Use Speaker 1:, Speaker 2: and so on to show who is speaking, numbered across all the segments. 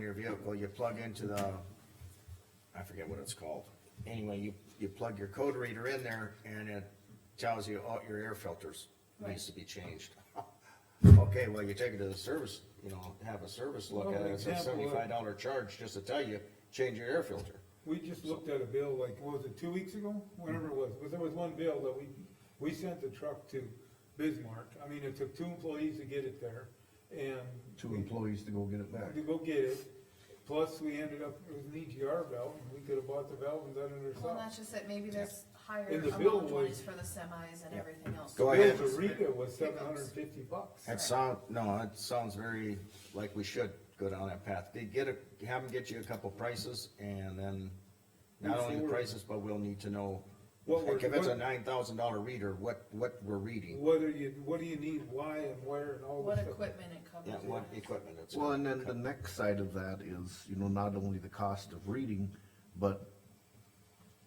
Speaker 1: your vehicle, you plug into the, I forget what it's called. Anyway, you, you plug your code reader in there and it tells you, oh, your air filters needs to be changed. Okay, well, you take it to the service, you know, have a service look at it, it's a
Speaker 2: Well, example, uh,
Speaker 1: seventy-five dollar charge just to tell you, change your air filter.
Speaker 2: We just looked at a bill like, what was it, two weeks ago? Whatever it was, but there was one bill that we, we sent the truck to Bismarck. I mean, it took two employees to get it there and.
Speaker 3: Two
Speaker 2: we-
Speaker 3: employees to go get it back.
Speaker 2: To go get it, plus we ended up, it was an EGR valve, and we could have bought the valve and done it
Speaker 4: Well,
Speaker 2: ourselves.
Speaker 4: that's just it, maybe there's higher
Speaker 2: And the bill
Speaker 4: amount
Speaker 2: was-
Speaker 4: ones for the semis and everything else.
Speaker 1: Go
Speaker 2: The
Speaker 1: ahead.
Speaker 2: bill to Rita was seven hundred and fifty bucks.
Speaker 1: That sound, no, it sounds very like we should go down that path. Get- Get a, have them get you a couple prices and then not only the
Speaker 2: Before-
Speaker 1: prices, but we'll need to know.
Speaker 2: What we're-
Speaker 1: Like if it's a
Speaker 2: what-
Speaker 1: nine thousand dollar reader, what, what we're reading,
Speaker 2: Whether you, what do you need, why and where and all
Speaker 4: What
Speaker 2: this stuff.
Speaker 4: equipment it covers.
Speaker 1: yeah, what equipment it's.
Speaker 3: Well, and then the next side of that is, you know, not only the cost of reading, but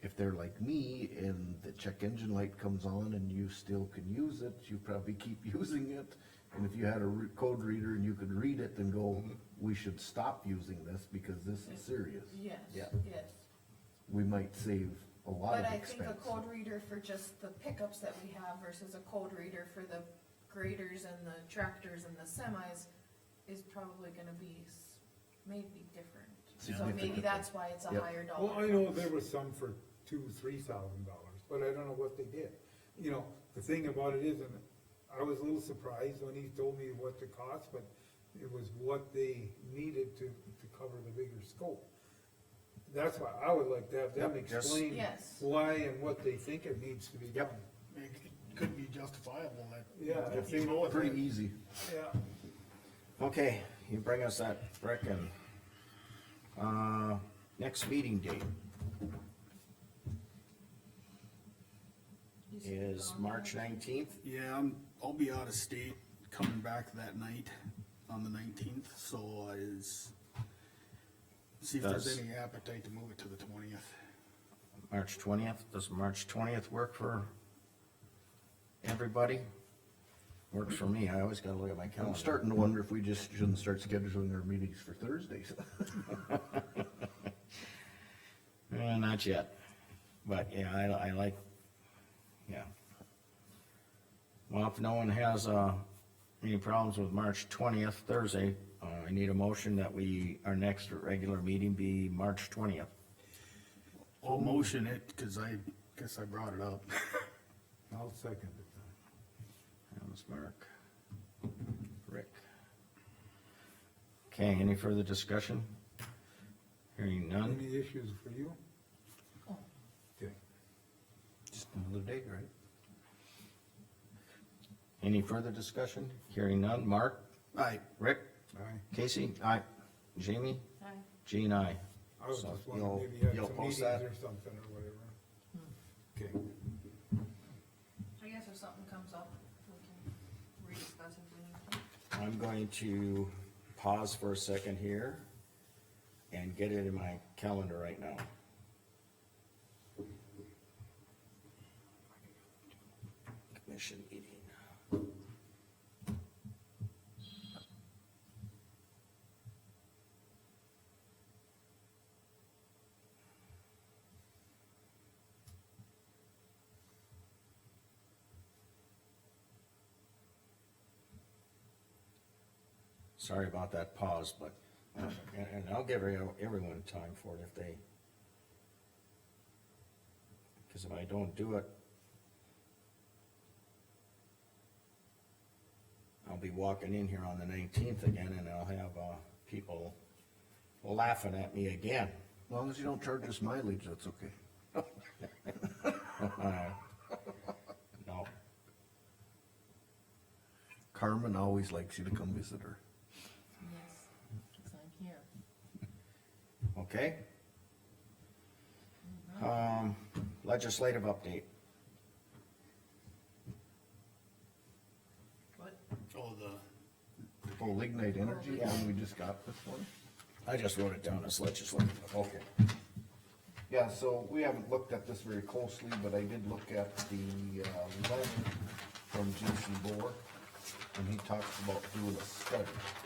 Speaker 3: if they're like me and the check engine light comes on and you still can use it, you probably keep using it. And if you had a re- code reader and you could read it, then go, we should stop using this because this is serious.
Speaker 4: Yes,
Speaker 1: Yeah.
Speaker 4: yes.
Speaker 3: We might save a lot
Speaker 4: But
Speaker 3: of
Speaker 4: I think a
Speaker 3: expense.
Speaker 4: code reader for just the pickups that we have versus a code reader for the graders and the tractors and the semis is probably gonna be s- maybe different. So maybe
Speaker 3: Significantly.
Speaker 4: that's why it's a
Speaker 3: Yep.
Speaker 4: higher
Speaker 2: Well, I
Speaker 4: dollar.
Speaker 2: know there was some for two, three thousand dollars, but I don't know what they did. You know, the thing about it is, and I was a little surprised when he told me what the cost, but it was what they needed to, to cover the bigger scope. That's why I would like to have them
Speaker 1: Yep, just-
Speaker 2: explain
Speaker 4: Yes.
Speaker 2: why and what they think it needs to be done.
Speaker 5: It could be justifiable, that.
Speaker 2: Yeah, if
Speaker 5: You
Speaker 2: they-
Speaker 5: know, if
Speaker 3: Pretty
Speaker 5: it-
Speaker 3: easy.
Speaker 2: Yeah.
Speaker 1: Okay, you bring us that brick and, uh, next meeting date
Speaker 4: You see it
Speaker 1: is
Speaker 4: on
Speaker 1: March
Speaker 4: there?
Speaker 1: nineteenth.
Speaker 5: yeah, I'm, I'll be out of state, coming back that night on the nineteenth, so is, see if
Speaker 1: Does-
Speaker 5: there's any appetite to move it to the twentieth.
Speaker 1: March twentieth, does March twentieth work for everybody? Works for me, I always gotta look at my
Speaker 3: I'm
Speaker 1: calendar.
Speaker 3: starting to wonder if we just shouldn't start scheduling our meetings for Thursdays.
Speaker 1: Eh, not yet, but yeah, I, I like, yeah. Well, if no one has, uh, any problems with March twentieth, Thursday, uh, I need a motion that we, our next regular meeting be March twentieth.
Speaker 5: I'll motion it, cause I guess I brought it up.
Speaker 2: I'll second it.
Speaker 1: That was Mark. Rick. Okay, any further discussion? Hearing none?
Speaker 2: Any issues for you? Okay.
Speaker 1: Just another day, right? Any further discussion? Hearing none? Mark?
Speaker 5: Aye,
Speaker 1: Rick?
Speaker 2: Aye.
Speaker 1: Casey? Aye. Jamie?
Speaker 4: Aye.
Speaker 1: Gene, aye.
Speaker 2: I was
Speaker 1: So
Speaker 2: just wondering,
Speaker 1: you'll-
Speaker 2: maybe you had
Speaker 1: you'll
Speaker 2: some
Speaker 1: post
Speaker 2: meetings
Speaker 1: that?
Speaker 2: or something or whatever. Okay.
Speaker 4: I guess if something comes up, we can rediscuss if we need to.
Speaker 1: I'm going to pause for a second here and get it in my calendar right now. Commission meeting. Sorry about that pause, but, and, and I'll give every- everyone time for it if they. Cause if I don't do it. I'll be walking in here on the nineteenth again and I'll have, uh, people laughing at me again.
Speaker 3: As long as you don't charge us mileage, that's okay.
Speaker 1: No,
Speaker 3: Carmen always likes you to come visit her.
Speaker 4: Yes, because I'm here.
Speaker 1: okay? Um, legislative update.
Speaker 4: What?
Speaker 5: oh, the,
Speaker 3: Oh, Lignite Energy, the one we just got this one?
Speaker 1: I just wrote it down as legislative, okay.
Speaker 3: Yeah, so we haven't looked at this very closely, but I did look at the, uh, letter from Jason Bohr. And he talks about doing a study.